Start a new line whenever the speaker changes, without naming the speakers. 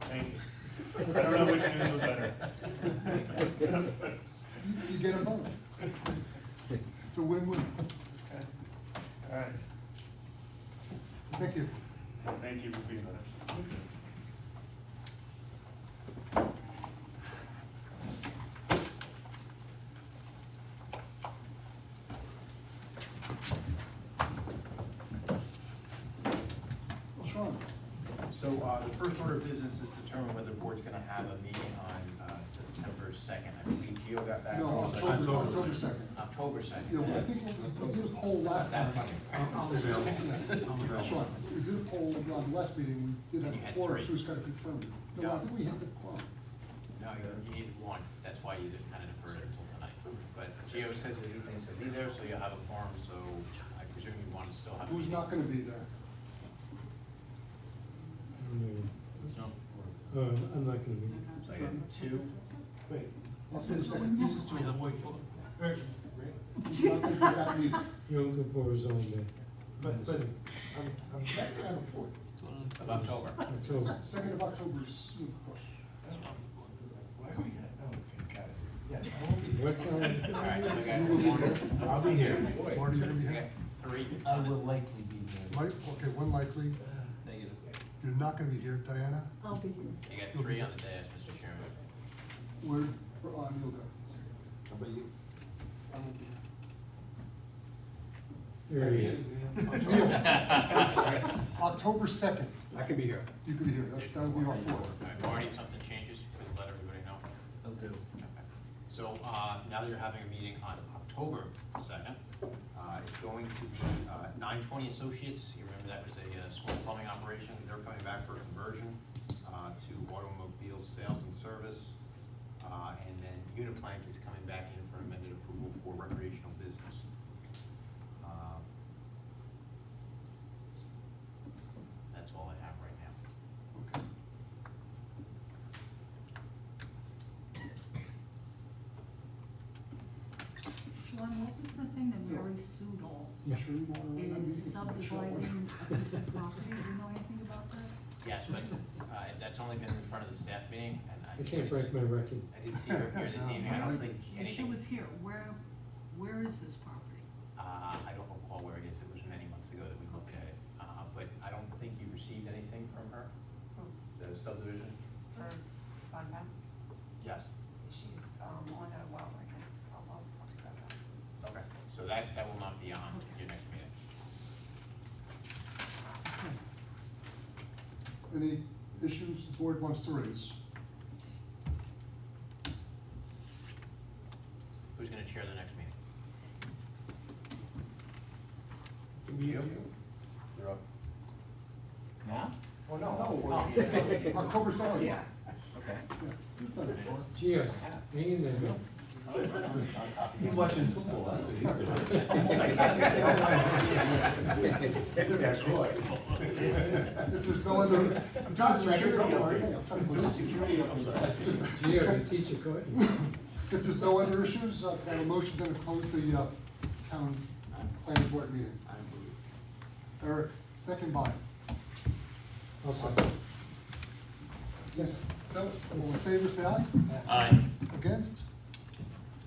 things. I don't know which news was better.
You get them both. It's a win-win.
All right,
Thank you.
thank you for being with us.
Well, Sean,
So uh, the first order of business is determine whether the board's going to have a meeting on uh, September 2nd. I believe Gio got that.
no,
Also,
October, October second.
October 2nd.
Yeah, well, I think we we did a poll last time. Sean, we did a poll on the last meeting, we did
You
have a
had
forum,
three.
so it's gotta confirm it. No, I
Yeah.
think we had the quorum.
No, you- you need one. That's why you just kind of deferred it until tonight. But Gio says that he thinks he'll be there, so you'll have a forum, so I presume you want to still have. a
Who's
meeting.
not gonna be there?
No.
Uh, I'm not gonna be.
So I got two.
Wait.
This is, this is to avoid,
He's not gonna be at that meeting.
Yom Kippur is on the.
But, but,
on
I'm, I'm back on the fourth.
Of October.
the October.
Second of October is, of course.
Why are we, oh, okay, got it. Yes.
What time?
All right, so we got one.
I'll be here.
Marty, you gonna be
We
here?
got three.
I will likely be there.
Like, okay, one likely,
Negative.
you're not gonna be here, Diana?
I'll be here.
You got three on the dais, Mr. Chairman.
Where, for, on yoga?
How about you?
I won't be here.
There he is.
Neil, October second,
I can be here.
you can be here, that, that would be our fourth.
All right, Marty, if something changes, please let everybody know.
I'll do.
Okay. So, uh, now that you're having a meeting on October second, uh, it's going to be, uh, nine twenty Associates, you remember that was a, uh, small plumbing operation, they're coming back for a conversion, uh, to automobile sales and service. Uh, and then Uniplank is coming back in for amended approval for recreational business. Uh, That's all I have right now.
Okay.
Sean, what was the thing that Mary Sudol
Yeah.
Sure you wanna run that meeting?
is
Sure.
subdividing a piece of property? Do you know anything about that?
Yes, but uh, that's only been in front of the staff meeting, and I.
I can't break my record.
I did see her here this evening, I don't think
And she
anything,
was here. Where, where is this property?
uh, I don't recall where it is, it was many months ago that we looked at it. Uh, But I don't think you received anything from her, the subdivision?
for Von Bass.
Yes.
She's um, on a well right now. I'll, I'll talk to her about that.
Okay. So that, that will not be on your next meeting.
Any issues the board wants to raise?
Who's gonna chair the next meeting?
You're up.
Yeah?
Oh, no. No, October second. Yeah.
Okay.
You've done it before.
Cheers. Hang in there, man.
He's watching football, that's what he's doing.
If there's no other. I'm trying to secure don't worry. I'm trying to put this security up.
Gio, the teacher caught you.
If there's no other issues, uh, can I have a motion then to close the, uh, town planning board meeting. Eric, second by.
I'll second.
Yes. No, all in favor, say aye.
Aye.
Against?